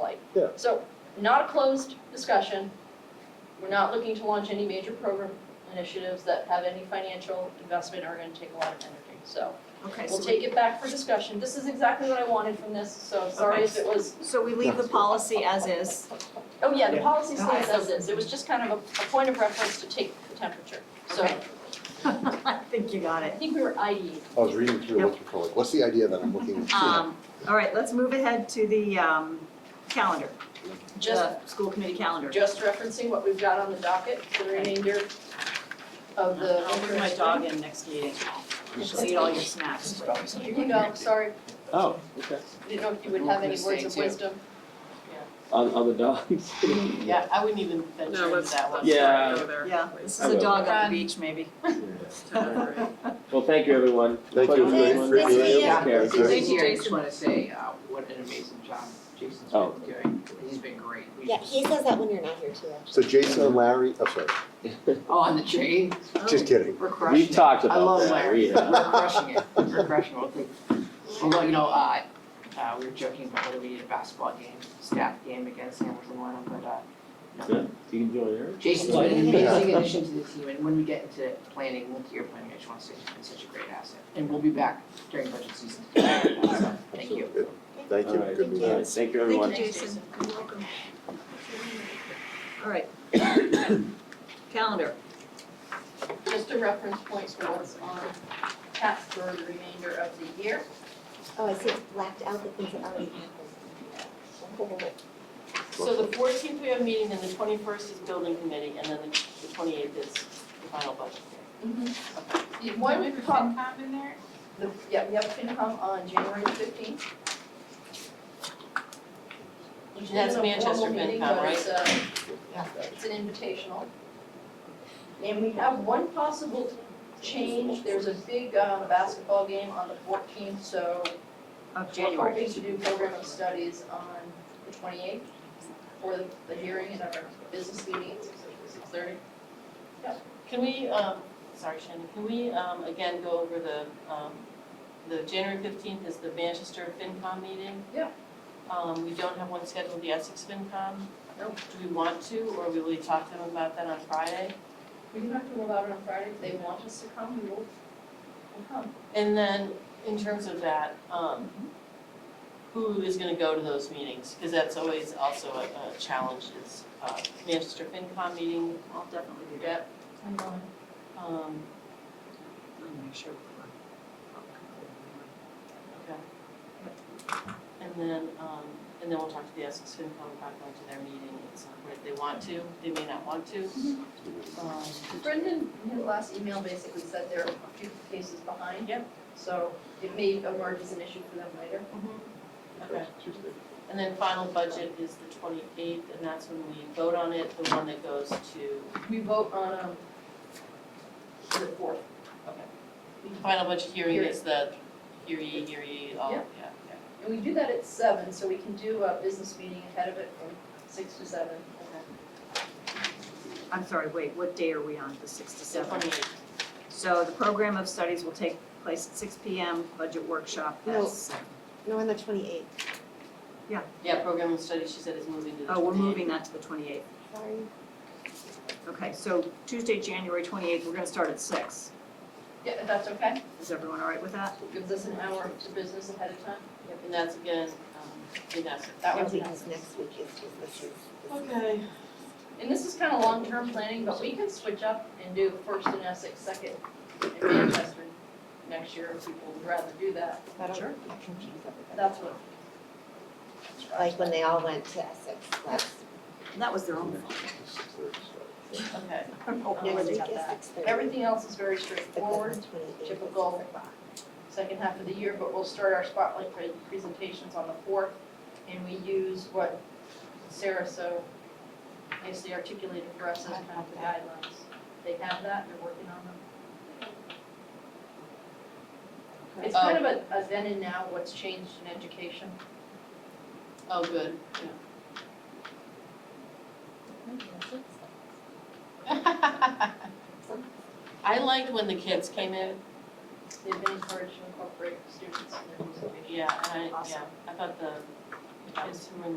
like. Yeah. So, not a closed discussion. We're not looking to launch any major program initiatives that have any financial investment or are gonna take a lot of energy, so. Okay, We'll so, take it back for discussion. This is exactly what I wanted from this, so sorry Okay. if it was, so we leave the policy as is. oh yeah, the Yeah. policy Okay. stays as is. It was just kind of a, a point of reference to take the temperature. So, Okay. I think you got I E. it. think we were IE. I was reading through, looking for like, what's the idea that I'm looking for? Um, all right, let's move ahead to the, um, calendar, Just, the school committee calendar. just referencing what we've got on the docket for the remainder of the. I'll bring my dog in next meeting. She'll eat all your snacks. Here you go, sorry. Oh, okay. I Didn't know if you would have any We're words gonna of stay too. wisdom. On, on the dogs. Yeah, I wouldn't even venture into let's- that one. Yeah. Yeah, this I is a will. dog on Run. the beach, maybe. Well, thank you, everyone. Thank you. Pleasure Thank doing you. it. Take care. Thank you, This year, I Jason. just wanna say, uh, what an amazing job Jason's Oh. been doing, he's been great. We Yeah, should- he says that when you're not here too. So Jason and Larry, oh, sorry, Oh, on the train, Oh. just kidding. we're crushing We've it. talked I about love that, Larry, we, uh, we're crushing it, we're crushing it, Okay. Although, you know, uh, uh, we were joking about whether we need a basketball game, staff game against Hamilton Wenham, but, uh, yeah, you can join her. Jason's been an amazing addition to the team, and when we get into planning, multi-year planning, I just wanna say he's been such a great asset. And we'll be back during budget season to talk about that stuff. thank you. Thank you, All right. good All meeting. right, thank you, everyone. Thank you, Jason. You're welcome. All right. Calendar. Just a reference point for what's on tap for the remainder of the year. Oh, I see, it's blacked out the things that already happened. So the fourteenth, we have a meeting, and the twenty-first is building committee, and then the twenty-eighth is the final budget. One pop- in there? the, yeah, we have FinCom on January fifteenth. That's Manchester FinCom, right? It's a- it's an invitational. And we have one possible change, there's a big uh, basketball game on the fourteenth, so Of we're January. hoping to do program of studies on the twenty-eighth for the, the hearing and our business meeting at six thirty. Can we, um, sorry Shannon, can we, um, again, go over the, um, the January fifteenth is the Manchester FinCom meeting? Yeah. Um, we don't have one scheduled, the Essex FinCom. No. Do we want to, or will we talk to them about that on Friday? We can talk to them about it on Friday, if they want us to come, we will, we'll come. And then, in terms of that, um, who is gonna go to those meetings? Cause that's always also a, a challenge is, uh, Manchester FinCom meeting, I'll definitely do that. yep. Um, I'll make sure. okay. And then, um, and then we'll talk to the Essex FinCom about going to their meeting at some point, if they want to, they may not want to. Mm-hmm. Um, Brendan, in his last email basically said there are a few cases behind. Yep. So it may emerge as an issue for them later. okay. Tuesday. And then final budget is the twenty-eighth, and that's when we vote on it, the one that goes to We vote on, um, the fourth. Final budget hearing is the, hear ye, hear ye, all, yeah, Yeah. yeah. And we do that at seven, so we can do a business meeting ahead of it from six to seven. oh, I'm sorry, wait, what day are we on, the six to So seven? 28th. So the program of studies will take place at six P M, budget workshop No. at seven. No, on the twenty-eighth, yeah, program and study, she said is moving to the Oh, we're 28th. moving that to the twenty-eighth. sorry. Okay, so Tuesday, January twenty-eighth, we're gonna start at six. Yeah, if that's okay. Is everyone all right with that? Gives us an hour to business ahead of time. Yep, And that's again, um, in essence. That Yeah, one's not. Because next week is, is this year's. Okay. And this is kind of long-term planning, but we can switch up and do first in Essex, second in Manchester next year if people would rather do that. Sure. That confuses everybody. That's what. Like when they all went to Essex last. And that was their own fault. Okay. Yeah, Next they week got is that. six thirty. Everything else is very But then straightforward, the twenty-eighth is typical. six o'clock. second half of the year, but we'll start our spotlight pre- presentations on the fourth. And we use what Sarah so nicely articulated for us as kind of the guidelines. They have that, they're working on them. It's kind of a, a then and now, what's changed in education. Oh, good, yeah. I liked when the kids came in, They've been encouraged to incorporate students in their music videos. yeah, and I, yeah, Awesome. I thought the kids who were in the